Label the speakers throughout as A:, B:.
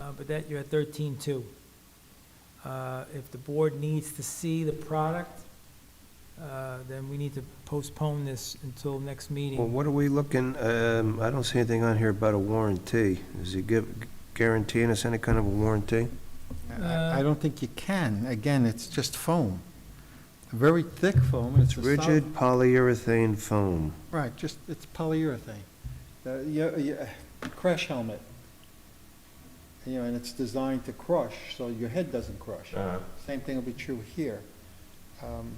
A: uh, but that, you're at thirteen two. Uh, if the board needs to see the product, uh, then we need to postpone this until next
B: Well,
A: meeting.
B: what are we looking, um, I don't see anything on here about a warranty. Is he give, guaranteeing us any kind of a warranty?
A: Uh,
C: I I don't think you can. Again, it's just foam. Very thick foam, and it's a solid-
B: Rigid polyurethane foam.
C: Right, just, it's polyurethane. Uh, yeah, yeah, Crash helmet. You know, and it's designed to crush, so your head doesn't crush.
B: Uh-huh.
C: Same thing will be true here. Um,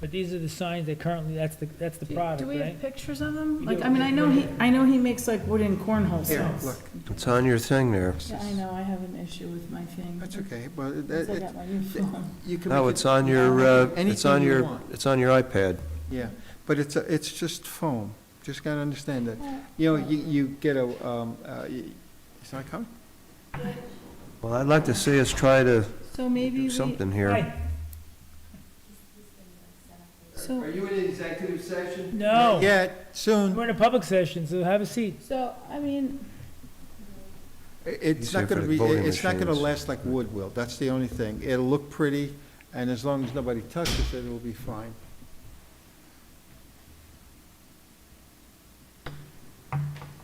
A: But these are the signs that currently, that's the, that's the
D: Do
A: product,
D: we have
A: right?
D: pictures of them?
A: You
D: Like,
A: do.
D: I mean, I know he, I know he makes like wooden cornhole
C: Here,
D: sets.
C: look,
B: It's on your thing there.
D: Yeah, I know, I have an issue with my thing.
C: that's okay, but it-
D: Since I
C: it-
D: got my new
C: it-
D: phone.
C: you can.
B: No,
C: make
B: it's
C: it-
B: on your, uh, it's
C: Anything
B: on
C: you
B: your,
C: want.
B: it's on your iPad.
C: Yeah, but it's, a- it's just foam. Just gotta understand that. You know, you, you get a, um, uh, y- it's not coming?
B: Well, I'd like to see us try to
D: So maybe
B: do
D: we,
B: something here.
D: so,
E: you in executive session?
A: No,
C: Yeah, soon.
A: we're in a public session, so have a seat.
D: so, I mean,
C: It's
B: Easier
C: not
B: for
C: gonna
B: the
C: be,
B: voting
C: it's not gonna
B: machines.
C: last like wood will, that's the only thing. It'll look pretty, and as long as nobody touches it, it'll be fine.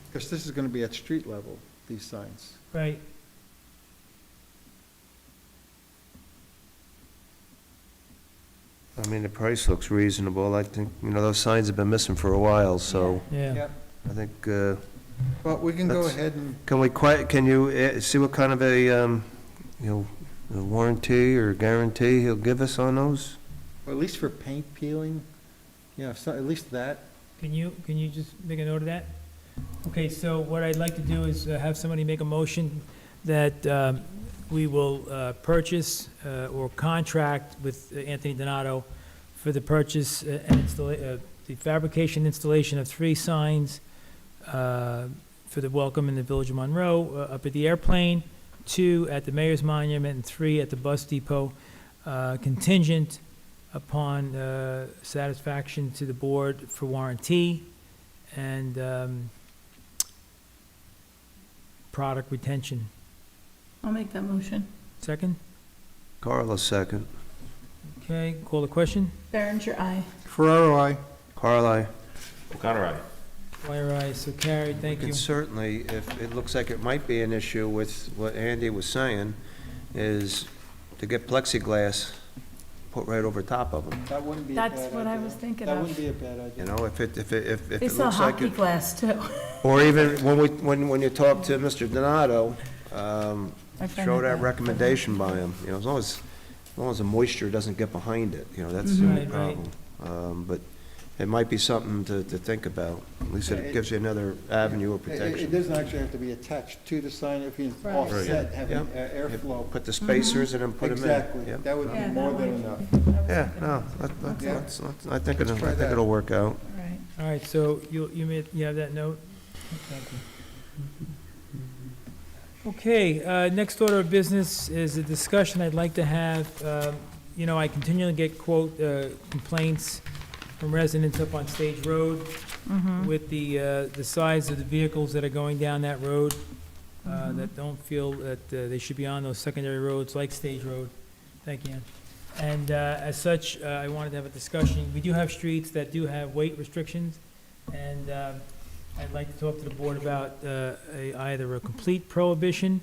C: Because this is gonna be at street level, these signs.
A: Right.
B: I mean, the price looks reasonable. I think, you know, those signs have been missing for a while, so
A: Yeah.
B: I think, uh,
C: Well, we can go
B: That's-
C: ahead and,
B: can we quite, can you uh, see what kind of a, um, you know, a warranty or guarantee he'll give us on those?
C: or at least for paint peeling, you know, so- at least that.
A: Can you, can you just make a note of that? Okay, so what I'd like to do is uh, have somebody make a motion that um, we will uh, purchase uh, or contract with uh, Anthony Donato for the purchase uh, and installa, uh, the fabrication installation of three signs uh, for the welcome in the Village of Monroe, uh, up at the airplane, two at the Mayor's Monument, and three at the bus depot, uh, contingent upon uh, satisfaction to the board for warranty and um, product retention.
D: I'll make that motion.
A: Second?
B: Carl, a second.
A: Okay, call the question.
D: Berenger, aye.
C: Ferraro, I,
B: Carl, I.
E: O'Connor, aye.
A: Wire eyes, so carried, thank
B: We
A: you.
B: can certainly, if it looks like it might be an issue with what Andy was saying, is to get plexiglass put right over top of them.
C: that wouldn't be a bad idea.
D: That's what I was thinking
C: That wouldn't
D: of.
C: be a bad
B: You
C: idea.
B: know, if it, if it, if if
D: They
B: it
D: sell
B: looks like
D: hockey
B: it.
D: glass too.
B: Or even when we, when, when you talk to Mr. Donato, um,
D: My friend
B: throw
D: had
B: that recommendation by him, you know, as long as, as long as the moisture doesn't get behind it, you know, that's
D: Mm-hmm.
B: the only
A: Mhm. Right, right.
B: problem. Um, but it might be something to, to think about. At least
C: Yeah, it-
B: it gives you another avenue of
C: It- It it
B: protection.
C: doesn't actually have to be attached to the sign if you
D: Right.
C: offset, have
B: Yeah.
C: an air- airflow.
B: Put the spacers in and put them in.
C: Exactly,
B: Yep.
C: that would be
D: Yeah,
C: more
D: that
C: than
D: might-
C: enough.
B: Yeah, no, that- that-
C: Yeah.
B: that's, that's- I think it'll,
C: try
B: I think
C: that.
B: it'll work out.
D: Right.
A: All right, so you, you made, you have that note? Thank you. Okay, uh, next order of business is a discussion I'd like to have. Um, You know, I continually get quote, uh, complaints from residents up on Stage Road
D: Mm-hmm.
A: with the, uh, the size of the vehicles that are going down that road, uh, that don't feel that uh, they should be on those secondary roads like Stage Road. Thank you, Ann. And uh, as such, uh, I wanted to have a discussion. We do have streets that do have weight restrictions, and uh, I'd like to talk to the board about uh, a- either a complete prohibition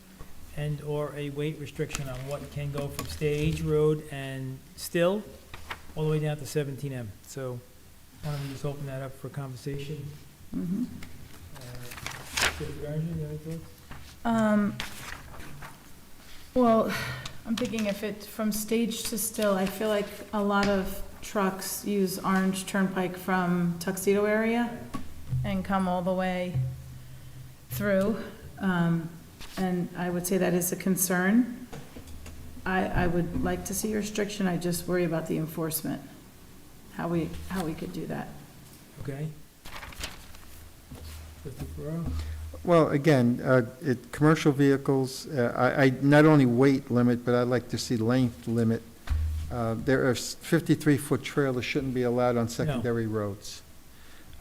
A: and/or a weight restriction on what can go from Stage Road and Still all the way down to 17M. So why don't we just open that up for conversation?
D: Mhm.
A: Uh, City Manager, you have any thoughts?
D: Um, well, I'm thinking if it, from stage to still, I feel like a lot of trucks use Orange Turnpike from Tuxedo area and come all the way through. Um, and I would say that is a concern. I, I would like to see restriction, I just worry about the enforcement, how we, how we could do that.
A: Okay. Trustee Ferraro?
C: Well, again, uh, it, commercial vehicles, uh, I, I, not only weight limit, but I'd like to see length limit. Uh, There are fifty-three foot trailers shouldn't be allowed on secondary roads.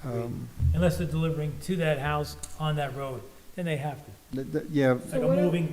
C: Um,
A: Unless they're delivering to that house on that road, then they have to.
C: th- th- Yeah,
A: Like a moving